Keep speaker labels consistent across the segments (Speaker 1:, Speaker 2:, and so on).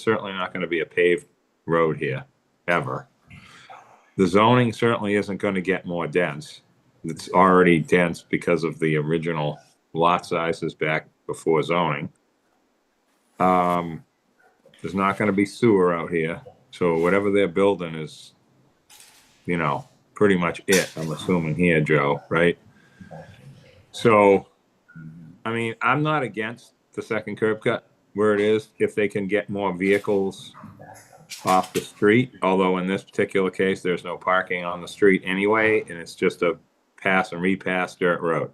Speaker 1: certainly not gonna be a paved road here, ever. The zoning certainly isn't gonna get more dense. It's already dense because of the original lot sizes back before zoning. Um, there's not gonna be sewer out here, so whatever they're building is, you know, pretty much it, I'm assuming here, Joe, right? So, I mean, I'm not against the second curb cut where it is, if they can get more vehicles off the street, although in this particular case, there's no parking on the street anyway, and it's just a pass and repass dirt road.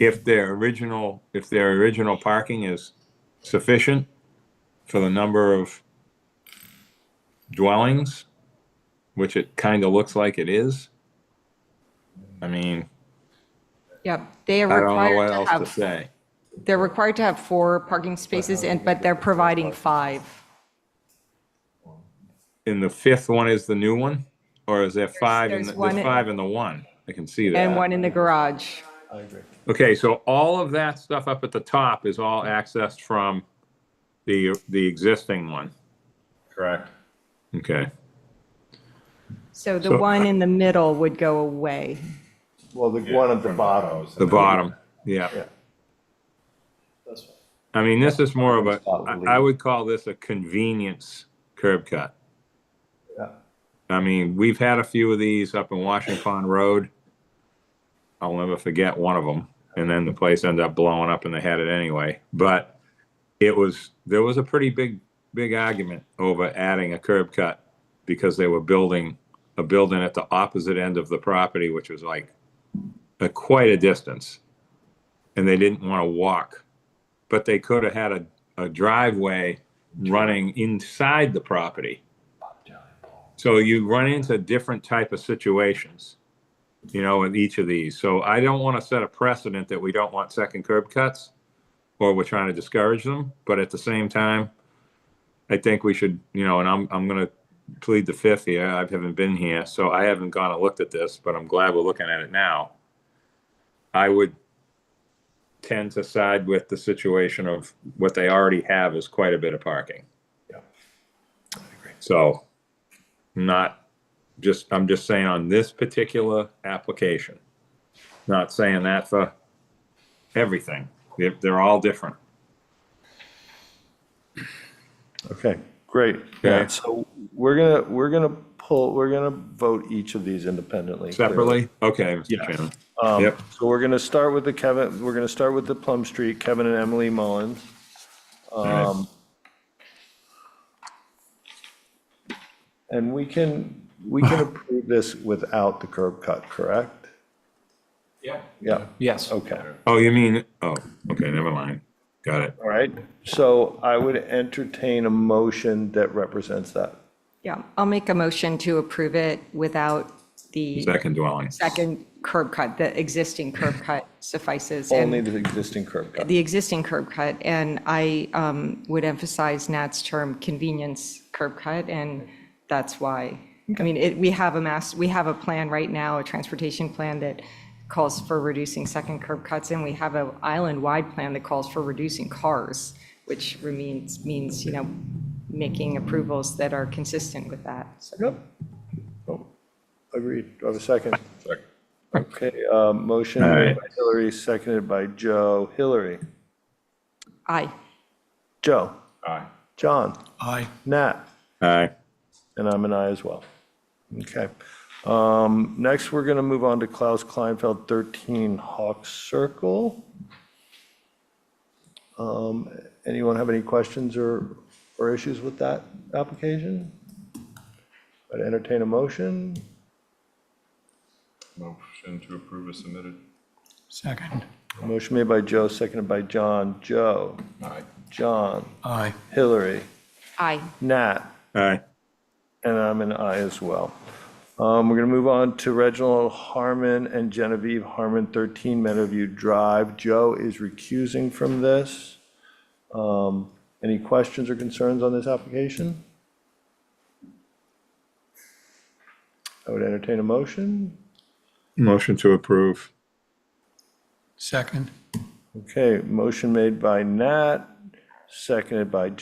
Speaker 1: If their original, if their original parking is sufficient for the number of dwellings, which it kind of looks like it is, I mean,
Speaker 2: Yep, they are
Speaker 1: I don't know
Speaker 2: required
Speaker 1: what
Speaker 2: to
Speaker 1: else to
Speaker 2: have,
Speaker 1: say.
Speaker 2: they're required to have four parking spaces, and, but they're providing five.
Speaker 1: And the fifth one is the new one, or is there five? in
Speaker 2: there's
Speaker 1: the-
Speaker 2: one
Speaker 1: There's
Speaker 2: in-
Speaker 1: five in the one. I can see that.
Speaker 2: And one in the garage.
Speaker 1: Okay, so all of that stuff up at the top is all accessed from the, the existing one.
Speaker 3: Correct.
Speaker 1: Okay.
Speaker 2: So the
Speaker 1: So-
Speaker 2: one in the middle would go away.
Speaker 4: Well, the one at the bottom.
Speaker 1: The bottom, yeah.
Speaker 4: Yeah.
Speaker 1: I mean, this is more of a,
Speaker 4: Probably.
Speaker 1: I I would call this a convenience curb cut.
Speaker 4: Yeah.
Speaker 1: I mean, we've had a few of these up in Washington Pond Road. I'll never forget one of them. And then the place ended up blowing up and they had it anyway. But it was, there was a pretty big, big argument over adding a curb cut because they were building a building at the opposite end of the property, which was like a, quite a distance. And they didn't want to walk, but they could have had a, a driveway running inside the property. So you run into different type of situations, you know, in each of these. So I don't want to set a precedent that we don't want second curb cuts or we're trying to discourage them. But at the same time, I think we should, you know, and I'm, I'm going to plead the fifth here. I haven't been here, so I haven't gone and looked at this, but I'm glad we're looking at it now. I would tend to side with the situation of what they already have is quite a bit of parking.
Speaker 4: Yeah.
Speaker 1: So not just, I'm just saying on this particular application. Not saying that for everything. They're, they're all different.
Speaker 4: Okay, great.
Speaker 1: Yeah.
Speaker 4: So we're gonna, we're gonna pull, we're gonna vote each of these independently.
Speaker 1: Separately? Okay, Mr.
Speaker 4: Yes.
Speaker 1: Chairman.
Speaker 4: Um,
Speaker 1: Yep.
Speaker 4: So we're gonna start with the Kevin, we're gonna start with the Plum Street, Kevin and Emily Mullins.
Speaker 1: right.
Speaker 4: Um, And we can, we can approve this without the curb cut, correct?
Speaker 3: Yeah.
Speaker 4: Yeah,
Speaker 5: Yes.
Speaker 4: okay.
Speaker 1: Oh, you mean, oh, okay, never mind. Got it.
Speaker 4: All right, so I would entertain a motion that represents that.
Speaker 2: Yeah, I'll make a motion to approve it without the
Speaker 1: Second dwelling.
Speaker 2: second curb cut, the existing curb cut suffices. and-
Speaker 4: Only the existing curb cut.
Speaker 2: the existing curb cut, and I um, would emphasize Nat's term, convenience curb cut, and that's why. I mean, it, we have a mass, we have a plan right now, a transportation plan that calls for reducing second curb cuts, and we have an island-wide plan that calls for reducing cars, which means, means, you know, making approvals that are consistent with that, so.
Speaker 4: Yep. Oh, Agreed. Do I have a second? Okay, uh, motion
Speaker 1: All
Speaker 4: made
Speaker 1: right.
Speaker 4: by Hillary, seconded by Joe. Hillary,
Speaker 2: Aye.
Speaker 4: Joe,
Speaker 3: Aye.
Speaker 4: John,
Speaker 5: Aye.
Speaker 4: Nat,
Speaker 1: Aye.
Speaker 4: and I'm an I as well. Okay. Um, Next, we're going to move on to Klaus Kleinfeld, 13 Hawk Circle. Um, Anyone have any questions or, or issues with that application? I'd entertain a motion.
Speaker 3: Motion to approve is submitted.
Speaker 5: Second.
Speaker 4: Motion made by Joe, seconded by John. Joe,
Speaker 3: Aye.
Speaker 4: John,
Speaker 5: Aye.
Speaker 4: Hillary,
Speaker 2: Aye.
Speaker 4: Nat,
Speaker 1: Aye.
Speaker 4: and I'm an I as well. Um, We're going to move on to Reginald Harmon and Genevieve Harmon, 13 Meadowview Drive. Joe is recusing from this. Um, Any questions or concerns on this application? I would entertain a motion.
Speaker 1: Motion to approve.
Speaker 5: Second.
Speaker 4: Okay, motion made by Nat, seconded by